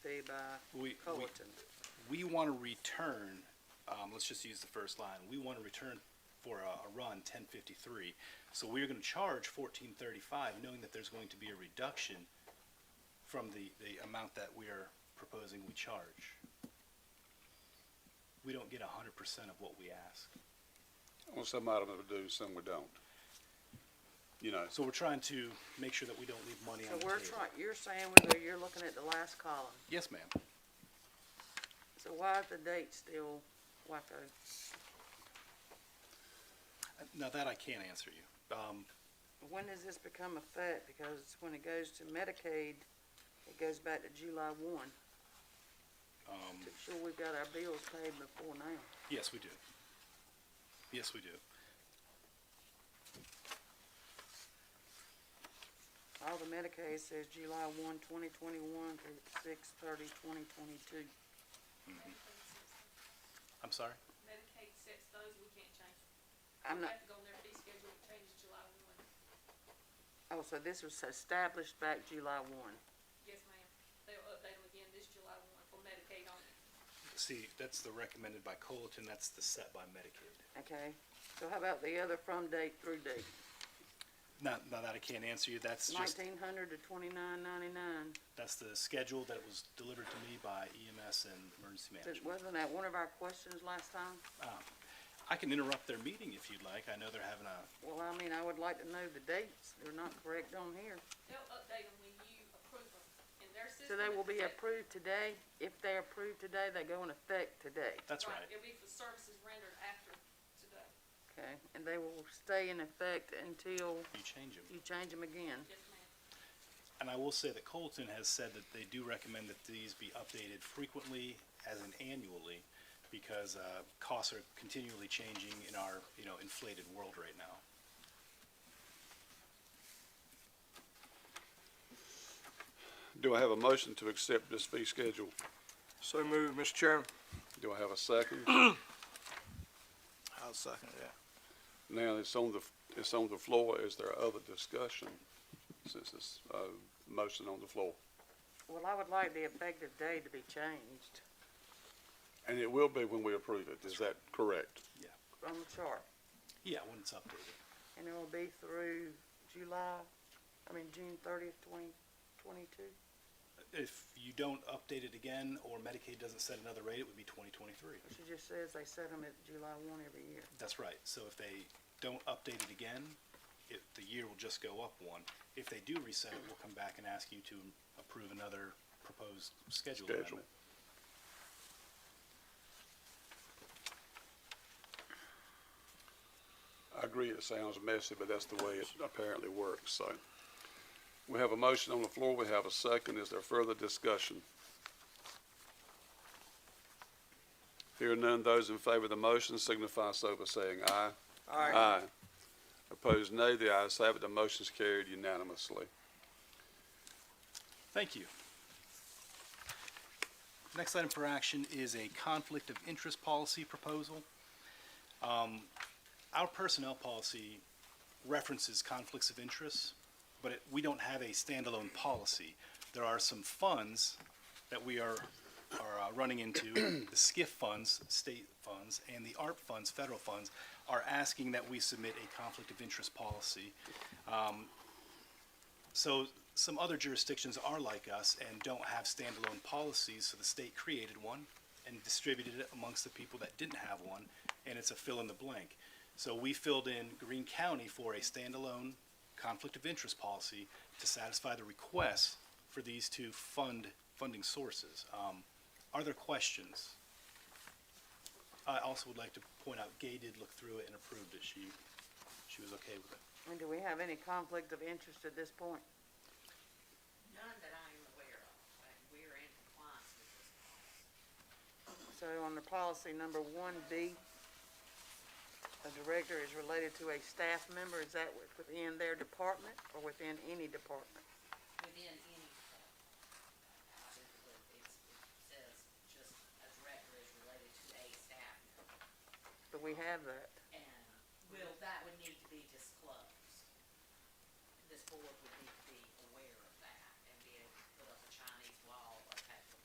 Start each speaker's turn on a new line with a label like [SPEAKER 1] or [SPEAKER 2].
[SPEAKER 1] uh,
[SPEAKER 2] We- we-
[SPEAKER 1] Culleton.
[SPEAKER 2] We want to return, um, let's just use the first line, we want to return for a, a run ten fifty-three. So we're going to charge fourteen thirty-five, knowing that there's going to be a reduction from the, the amount that we are proposing we charge. We don't get a hundred percent of what we ask.
[SPEAKER 3] On some items we do, some we don't. You know,
[SPEAKER 2] So we're trying to make sure that we don't leave money
[SPEAKER 1] So
[SPEAKER 2] on the
[SPEAKER 1] we're
[SPEAKER 2] table.
[SPEAKER 1] trying, you're saying whether you're looking at the last column.
[SPEAKER 2] Yes, ma'am.
[SPEAKER 1] So why is the date still WACO?
[SPEAKER 2] Now that I can't answer you. Um,
[SPEAKER 1] When does this become effect? Because when it goes to Medicaid, it goes back to July one.
[SPEAKER 2] um,
[SPEAKER 1] To sure we've got our bills paid before now.
[SPEAKER 2] Yes, we do. Yes, we do.
[SPEAKER 1] All the Medicaid says July one, twenty twenty-one through six thirty, twenty twenty-two.
[SPEAKER 2] I'm sorry?
[SPEAKER 4] Medicaid sets those, we can't change. them.
[SPEAKER 1] I'm
[SPEAKER 4] We
[SPEAKER 1] not,
[SPEAKER 4] have to go on their fee schedule, it changes July one.
[SPEAKER 1] oh, so this was established back July one.
[SPEAKER 4] Yes, ma'am. They'll update them again this July one for Medicaid on it.
[SPEAKER 2] See, that's the recommended by Colleton, that's the set by Medicaid.
[SPEAKER 1] Okay, so how about the other from date through date?
[SPEAKER 2] Now, now that I can't answer you, that's just,
[SPEAKER 1] Nineteen hundred to twenty-nine ninety-nine.
[SPEAKER 2] that's the schedule that was delivered to me by EMS and Emergency Management.
[SPEAKER 1] Wasn't that one of our questions last time?
[SPEAKER 2] Um, I can interrupt their meeting if you'd like, I know they're having a,
[SPEAKER 1] Well, I mean, I would like to know the dates. They're not correct on here.
[SPEAKER 4] They'll update them when you approve them in their
[SPEAKER 1] So
[SPEAKER 4] system.
[SPEAKER 1] they
[SPEAKER 4] it's
[SPEAKER 1] will be
[SPEAKER 4] effective.
[SPEAKER 1] approved today. If they're approved today, they go in effect today.
[SPEAKER 2] that's right.
[SPEAKER 4] It'll be for services rendered after today.
[SPEAKER 1] Okay, and they will stay in effect until
[SPEAKER 2] You change them.
[SPEAKER 1] you change them again.
[SPEAKER 4] Yes, ma'am.
[SPEAKER 2] And I will say that Colleton has said that they do recommend that these be updated frequently as in annually because, uh, costs are continually changing in our, you know, inflated world right now.
[SPEAKER 3] do I have a motion to accept this fee schedule?
[SPEAKER 5] So moved, Mr. Chairman.
[SPEAKER 3] Do I have a second?
[SPEAKER 5] I'll second that.
[SPEAKER 3] Now, it's on the, it's on the floor. Is there other discussion since it's, uh, motion on the floor?
[SPEAKER 1] Well, I would like the effective date to be changed
[SPEAKER 3] And it will be when we approve it. Is that correct?
[SPEAKER 1] on the chart.
[SPEAKER 2] Yeah, when it's updated.
[SPEAKER 1] And it will be through July, I mean, June thirtieth, twenty twenty-two.
[SPEAKER 2] If you don't update it again, or Medicaid doesn't set another rate, it would be twenty twenty-three.
[SPEAKER 1] She just says they set them at July one every year.
[SPEAKER 2] That's right, so if they don't update it again, it, the year will just go up one. If they do reset it, we'll come back and ask you to approve another proposed schedule
[SPEAKER 3] Schedule.
[SPEAKER 2] amendment.
[SPEAKER 3] I agree it sounds messy, but that's the way it apparently works, so. We have a motion on the floor, we have a second, is there further discussion? Hearing none, those in favor of the motion signify so by saying aye. Uh, Opposed, nay, the ayes have it, the motion's carried unanimously.
[SPEAKER 2] Thank you. Next item for action is a conflict of interest policy proposal. Um, Our personnel policy references conflicts of interest, but it- we don't have a standalone policy. There are some funds that we are, are uh, running into, the SCIF funds, state funds, and the ARP funds, federal funds, are asking that we submit a conflict of interest policy. So some other jurisdictions are like us and don't have standalone policies, so the state created one and distributed it amongst the people that didn't have one, and it's a fill in the blank. So we filled in Greene County for a standalone conflict of interest policy to satisfy the requests for these two fund, funding sources. Um, are there questions? I also would like to point out Gay did look through it and approved it. She, she was okay with it.
[SPEAKER 1] And do we have any conflict of interest at this point?
[SPEAKER 6] None that I am aware of, but we're in compliance with this policy.
[SPEAKER 1] So on the policy number one B, a director is related to a staff member, is that wi- within their department or within any department?
[SPEAKER 6] within any department. I think it would- it's- It says just a director is related to a staff member,
[SPEAKER 1] But we have that.
[SPEAKER 6] and will, that would need to be disclosed. This board would need to